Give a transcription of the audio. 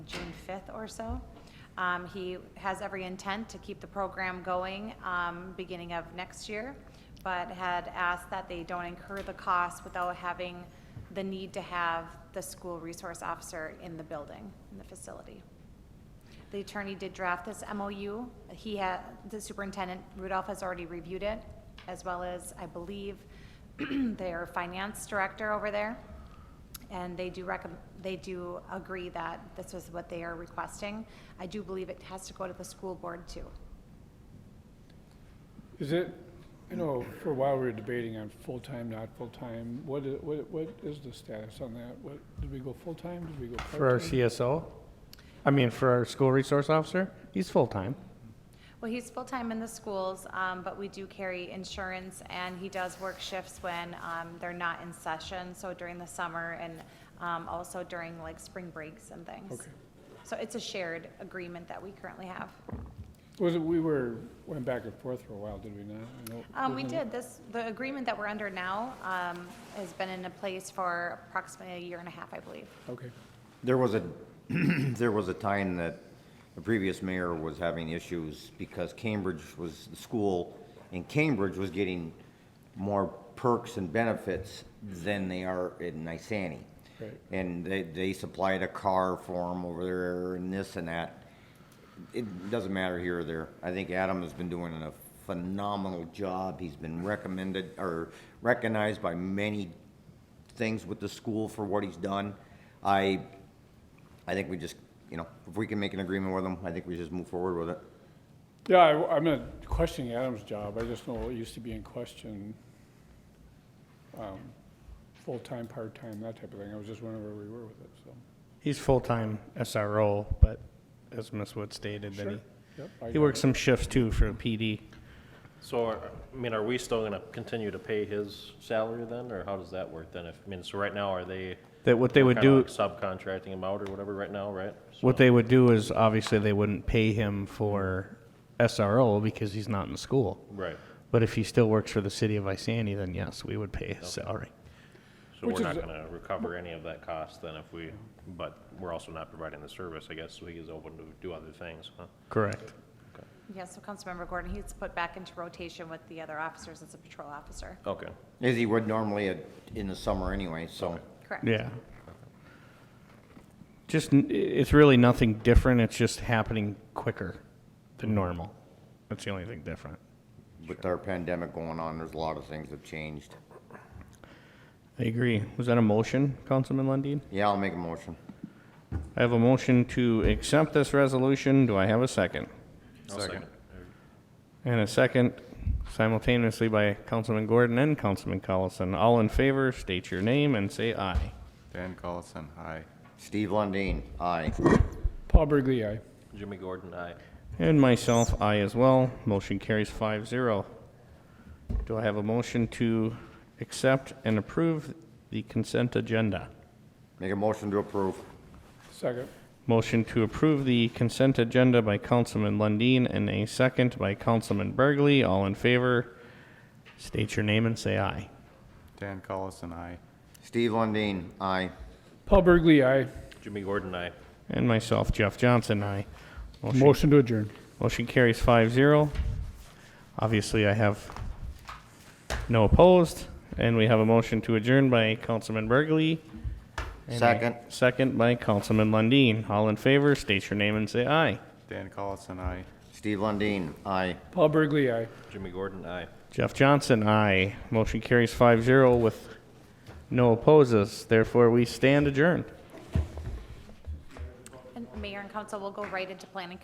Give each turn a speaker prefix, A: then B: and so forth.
A: June 5th or so. Um, He has every intent to keep the program going um, beginning of next year, but had asked that they don't incur the cost without having the need to have the school resource officer in the building, in the facility. The attorney did draft this MOU. He had, the superintendent Rudolph has already reviewed it, as well as, I believe, their finance director over there. And they do recommend, they do agree that this is what they are requesting. I do believe it has to go to the school board too.
B: Is it, you know, for a while we were debating on full-time, not full-time. What, i- what, what is the status on that? What, did we go full-time? Did we go part-time?
C: For our CSO? I mean, for our school resource officer? He's full-time.
A: Well, he's full-time in the schools, um, but we do carry insurance, and he does work shifts when, um, they're not in session, so during the summer and, um, also during like spring breaks and things.
B: Okay.
A: So it's a shared agreement that we currently have.
B: Was it, we were, went back and forth for a while, did we not? I know-
A: Um, we
B: wasn't
A: did,
B: it-
A: this, the agreement that we're under now, um, has been in place for approximately a year and a half, I believe.
B: Okay.
D: There was a, there was a time that the previous mayor was having issues because Cambridge was, the school in Cambridge was getting more perks and benefits than they are in Nisani.
B: Right.
D: And they, they supplied a car for them over there and this and that. It doesn't matter here or there. I think Adam has been doing a phenomenal job. He's been recommended or recognized by many things with the school for what he's done. I, I think we just, you know, if we can make an agreement with him, I think we just move forward with it.
B: Yeah, I, am not questioning Adam's job. I just know it used to be in question. um, Full-time, part-time, that type of thing. I was just wondering where we were with it, so.
C: He's full-time SRO, but as Ms. Wood stated, that
B: Yep, I
C: he, he
B: got
C: works some shifts too for PD.
E: So, are- I mean, are we still gonna continue to pay his salary then, or how does that work then? If, I mean, so right now, are they?
C: That what they would
E: kinda
C: do,
E: like Subcontracting him out or whatever right now, right?
C: what they would do is obviously they wouldn't pay him for SRO because he's not in the school.
E: Right.
C: But if he still works for the city of Isani, then yes, we would pay his salary.
E: So
B: Which
E: we're not
B: is-
E: gonna recover any of that cost then if we, but we're also not providing the service, I guess, so he is open to do other things, huh?
C: Correct.
A: Yes, so Councilmember Gordon, he's put back into rotation with the other officers as a patrol officer.
E: Okay,
D: As he would normally at- in the summer anyway, so.
A: Correct.
C: Yeah. Just, n- i- it's really nothing different, it's just happening quicker than normal. That's the only thing different.
D: With our pandemic going on, there's a lot of things have changed.
C: I agree. Was that a motion, Councilman Lundin?
D: Yeah, I'll make a motion.
C: I have a motion to accept this resolution. Do I have a second?
E: I'll second.
C: And a second simultaneously by Councilman Gordon and Councilman Collison. All in favor, state your name and say aye.
F: Dan Collison, aye.
D: Steve Lundin, aye.
B: Paul Burgley, aye.
E: Jimmy Gordon, aye.
C: And myself, aye as well. Motion carries five zero. Do I have a motion to accept and approve the consent agenda?
D: Make a motion to approve.
B: Second.
C: Motion to approve the consent agenda by Councilman Lundin and a second by Councilman Burgley. All in favor, state your name and say aye.
F: Dan Collison, aye.
D: Steve Lundin, aye.
B: Paul Burgley, aye.
E: Jimmy Gordon, aye.
C: And myself, Jeff Johnson, aye. Motion,
B: Motion to adjourn.
C: motion carries five zero. Obviously, I have no opposed, and we have a motion to adjourn by Councilman Burgley. and a
D: Second.
C: Second by Councilman Lundin. All in favor, state your name and say aye.
F: Dan Collison, aye.
D: Steve Lundin, aye.
B: Paul Burgley, aye.
E: Jimmy Gordon, aye.
C: Jeff Johnson, aye. Motion carries five zero with no opposes. Therefore, we stand adjourned.
A: And Mayor and council will go right into planning